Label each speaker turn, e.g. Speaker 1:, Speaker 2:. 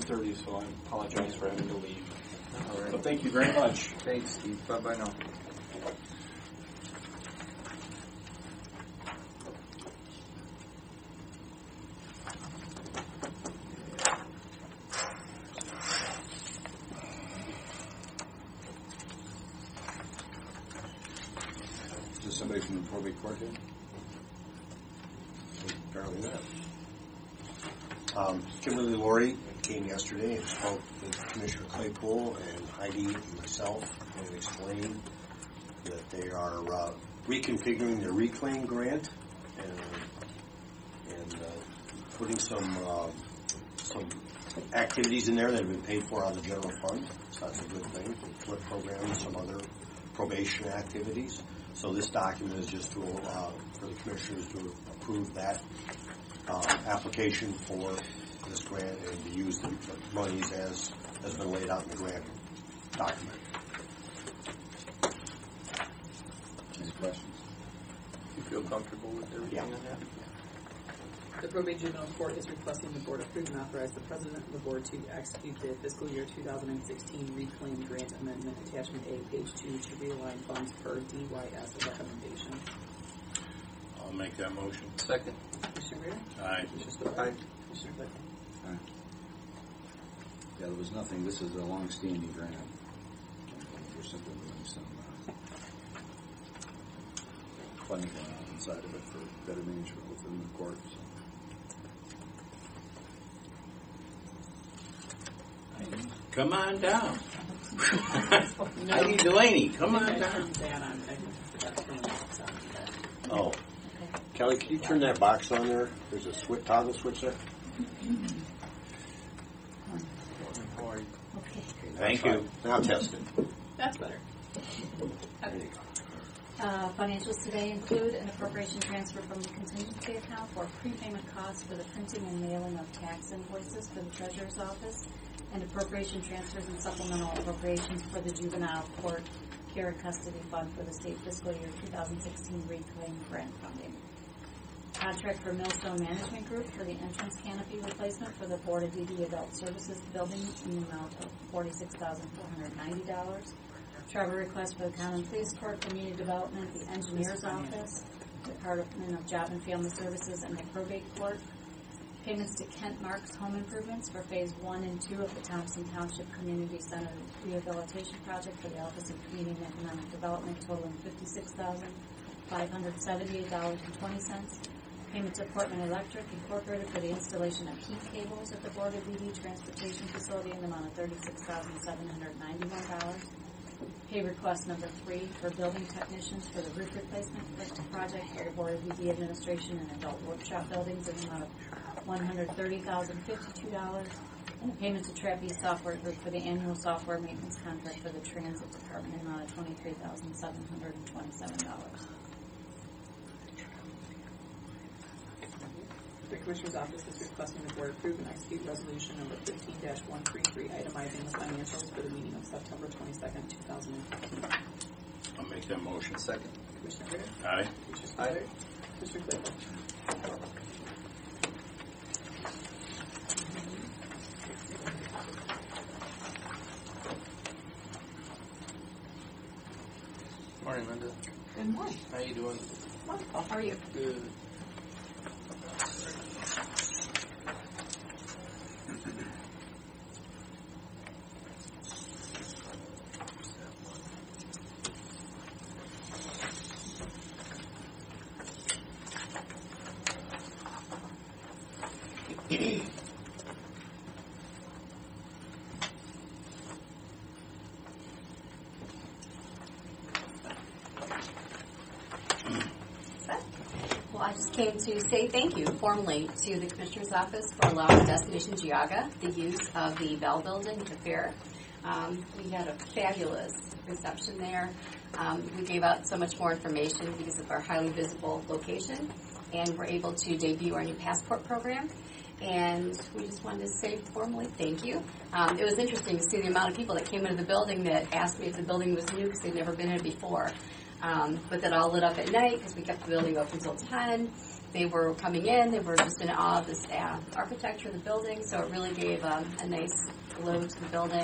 Speaker 1: thirty, so I apologize for having to leave. Uh, But thank you very much.
Speaker 2: Thanks, Steve. Bye-bye now.
Speaker 3: Is there somebody from the probate court here? Apparently not. Um, Kimberly Laurie came yesterday and spoke with Commissioner Claypool and Heidi and myself and explained that they are uh, reconfiguring their reclaim grant and, and uh, putting some, uh, some activities in there that have been paid for out of the general fund. So that's a good thing, flip program and some other probation activities. So this document is just to, uh, for the commissioners to approve that, uh, application for this grant and to use the monies as, has been laid out in the grant document.
Speaker 4: Any questions?
Speaker 2: You feel comfortable with everything
Speaker 3: Yeah.
Speaker 2: on that?
Speaker 5: The probate juvenile court is requesting the board approve and authorize the president of the board to execute the fiscal year 2016 reclaim grant amendment attachment A, page two, to realign funds per DYS recommendation.
Speaker 4: I'll make that motion.
Speaker 2: Second.
Speaker 5: Commissioner Rea?
Speaker 4: Aye.
Speaker 5: Commissioner Spillier?
Speaker 2: Aye.
Speaker 5: Commissioner Claypool?
Speaker 6: Yeah, there was nothing, this is a long-standing grant. We're simply doing some uh, funding going on inside of it for better management within the courts.
Speaker 4: Come on down. Heidi Delaney, come on
Speaker 5: I
Speaker 4: down.
Speaker 5: turned that on. I forgot to turn that on.
Speaker 3: Oh. Kelly, can you turn that box on there? There's a switch, toggle switch there.
Speaker 4: Thank you.
Speaker 3: Now test it.
Speaker 5: That's better.
Speaker 7: Uh, Financials today include an appropriation transfer from the contingency account for prepayment costs for the printing and mailing of tax invoices for the treasurer's office, and appropriation transfers and supplemental appropriations for the juvenile court care and custody fund for the state fiscal year 2016 reclaim grant funding. Contract for Millstone Management Group for the entrance canopy replacement for the Board of DD Adult Services building in the amount of forty-six thousand four hundred ninety dollars. Trevor request for the Common Police Court, Community Development, the Engineer's Office, Department of Job and Family Services, and the Probate Court. Payments to Kent Marks Home Improvements for Phase One and Two of the Thompson Township Community Center Rehabilitation Project for the Office of Community and Economic Development totaling fifty-six thousand five hundred seventy-eight dollars and twenty cents. Payment to Portman Electric Incorporated for the installation of heat cables at the Board of DD Transportation Facility in the amount of thirty-six thousand seven hundred ninety-one dollars. Pay request number three for building technicians for the roof replacement project for the Board of DD Administration and Adult Workshop Buildings in the amount of one hundred thirty thousand fifty-two dollars. And payment to Trappy Software Group for the annual software maintenance contract for the Transit Department in the amount of twenty-three thousand seven hundred and twenty-seven dollars.
Speaker 5: The Commissioner's Office is requesting the Board approve and execute Resolution Number fifteen one three three, itemizing the financials for the meeting of September twenty-second, two thousand and fifteen.
Speaker 4: I'll make that motion.
Speaker 2: Second.
Speaker 5: Commissioner Rea?
Speaker 4: Aye.
Speaker 5: Commissioner
Speaker 2: Aye.
Speaker 5: Spillier? Commissioner Claypool?
Speaker 2: Morning, Linda.
Speaker 8: Good morning.
Speaker 2: How you doing?
Speaker 8: Wonderful. How are you?
Speaker 2: Good.
Speaker 8: Well, I just came to say thank you formally to the Commissioner's Office for allowing Destination Giaga the use of the Bell Building at the fair. Um, we had a fabulous reception there. Um, we gave out so much more information because of our highly visible location, and we're able to debut our new passport program. And we just wanted to say formally thank you. Um, it was interesting to see the amount of people that came into the building that asked me if the building was new because they'd never been in it before. Um, but that all lit up at night because we kept the building open till 10. they were coming in, they were just in awe of this uh, architecture of the building, so it really gave um, a nice glow to the building.